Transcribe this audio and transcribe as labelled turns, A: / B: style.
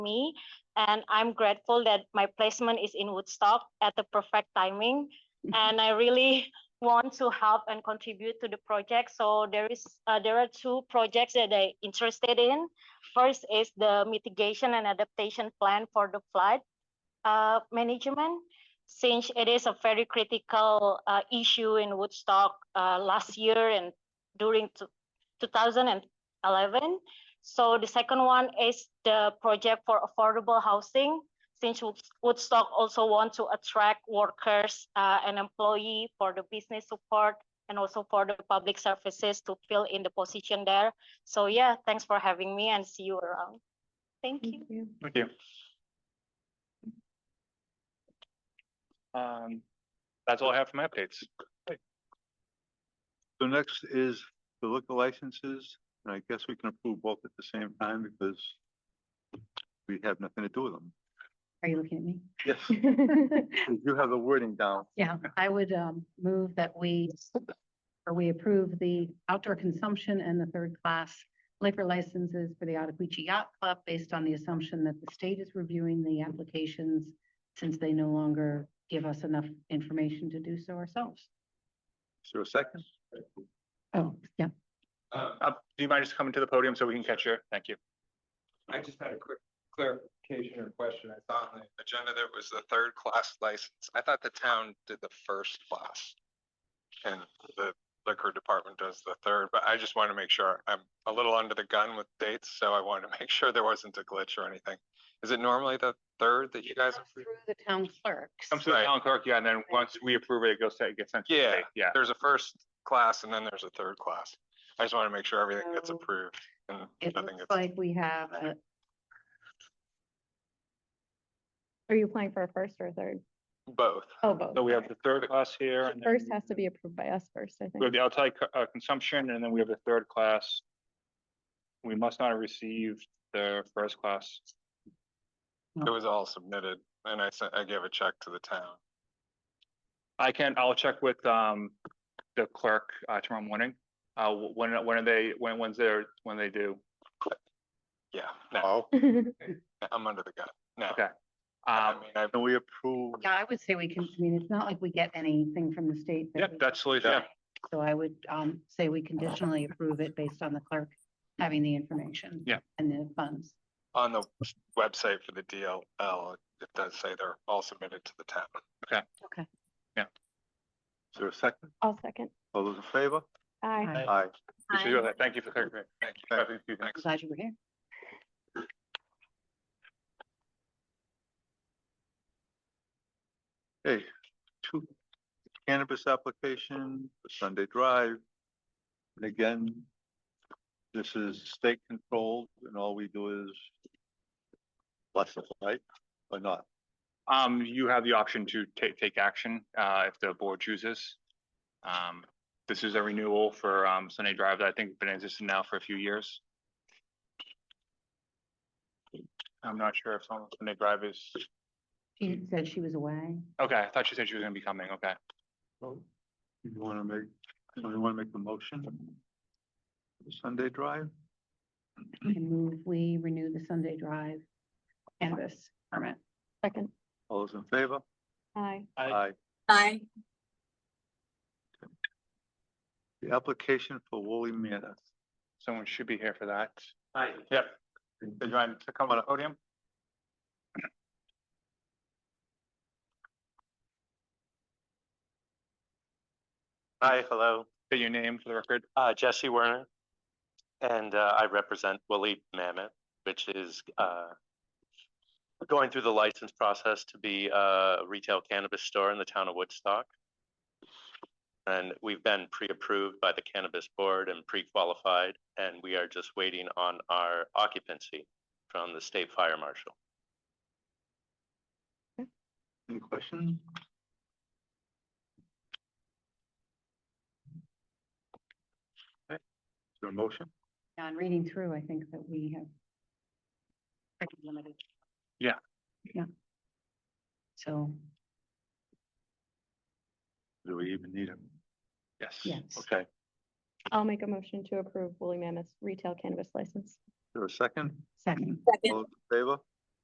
A: me. And I'm grateful that my placement is in Woodstock at the perfect timing. And I really want to help and contribute to the project. So there is, uh, there are two projects that I interested in. First is the mitigation and adaptation plan for the flood uh, management. Since it is a very critical uh, issue in Woodstock uh, last year and during two- 2011. So the second one is the project for affordable housing. Since Woods- Woodstock also want to attract workers uh, and employee for the business support and also for the public services to fill in the position there. So yeah, thanks for having me and see you around. Thank you.
B: Thank you. Um, that's all I have for my updates.
C: So next is the liquor licenses, and I guess we can approve both at the same time because we have nothing to do with them.
D: Are you looking
C: Yes,
D: at me?
C: you have the wording down.
D: Yeah, I would um move that we, or we approve the outdoor consumption and the third class liquor licenses for the Ottavici Yacht Club based on the assumption that the state is reviewing the applications since they no longer give us enough information to do so ourselves.
C: Is there a second?
D: Oh, yeah.
E: Uh,
B: Uh, do you mind just coming to the podium so we can catch you? Thank you.
E: I just had a quick clarification or question. I thought on the agenda there was the third class license. I thought the town did the first class. And the liquor department does the third, but I just want to make sure I'm a little under the gun with dates, so I wanted to make sure there wasn't a glitch or anything. Is it normally the third that you guys?
D: Through the town clerks.
B: Comes to the
E: Right.
B: town clerk, yeah, and then once we approve it, it goes to, it gets sent to the
E: Yeah.
B: state, yeah.
E: There's a first class and then there's a third class. I just want to make sure everything gets
D: So,
E: approved and
D: It
E: nothing
D: looks
E: gets.
D: like we have a
F: Are you applying for a first or a third?
E: Both.
F: Oh, both.
B: So we have the third class here.
F: The
B: and then
F: First has to be approved by us first, I
B: We have
F: think.
B: the outside co- uh, consumption and then we have the third class. We must not have received the first class.
E: It was
D: Oh.
E: all submitted and I sent, I gave a check to the town.
B: I can, I'll check with um the clerk uh tomorrow morning. Uh, wh- when, when are they, when, when's their, when they do?
E: Yeah. No,
F: It's
E: I'm under the gun. No.
B: Okay.
E: I
B: Um,
E: mean, I,
C: Can we approve?
D: Yeah, I would say we can, I mean, it's not like we get anything from the state. that
B: yeah,
D: we-
B: that's, the- yeah,
D: So I would um say we conditionally approve it based on the clerk having the information.
B: Yeah.
D: And the funds.
E: on the website for the DLL, it does say they're all submitted to the town.
D: Okay.
C: Is there a second?
F: I'll second.
C: All those in favor?
F: Aye.
D: I'm
C: Aye.
B: we should do that. Thank you for clarifying.
E: Thank you.
B: Thank you. Thanks.
D: Glad you were here.
C: Hey, two cannabis application for Sunday Drive. And again, this is state controlled and all we do is license, right? Or not?
B: Um, you have the option to take, take action, uh, if the board chooses. Um, this is a renewal for, um, Sunday Drive that I think has been existing now for a few years. I'm not sure if someone, Sunday Drive is,
D: She said she was away.
B: okay, I thought she said she was gonna be coming, okay.
C: You wanna make, you wanna make the motion? for Sunday Drive?
D: I move we renew the Sunday Drive canvas permit.
F: Second.
C: All those in favor?
F: Aye.
B: Aye.
G: Aye.
C: The application for Woolly Mammoth.
B: Someone should be here for that.
E: Aye.
B: Yep. Do you want to come on the podium?
H: Hi, hello,
B: Say your name for the record.
H: uh, Jesse Werner. And, uh, I represent Willie Mammoth, which is, uh, going through the license process to be a retail cannabis store in the town of Woodstock. And we've been pre-approved by the cannabis board and pre-qualified, and we are just waiting on our occupancy from the state fire marshal.
C: Any questions? Okay. Is there a motion?
D: Now, I'm reading through, I think that we have pretty limited.
B: Yeah.
D: Yeah. So,
C: Do we even need them?
B: Yes.
D: yes.
C: Okay, is
F: I'll make a motion to approve Woolly Mammoth's retail cannabis license.
C: there a second?
D: Second.
C: All those in favor?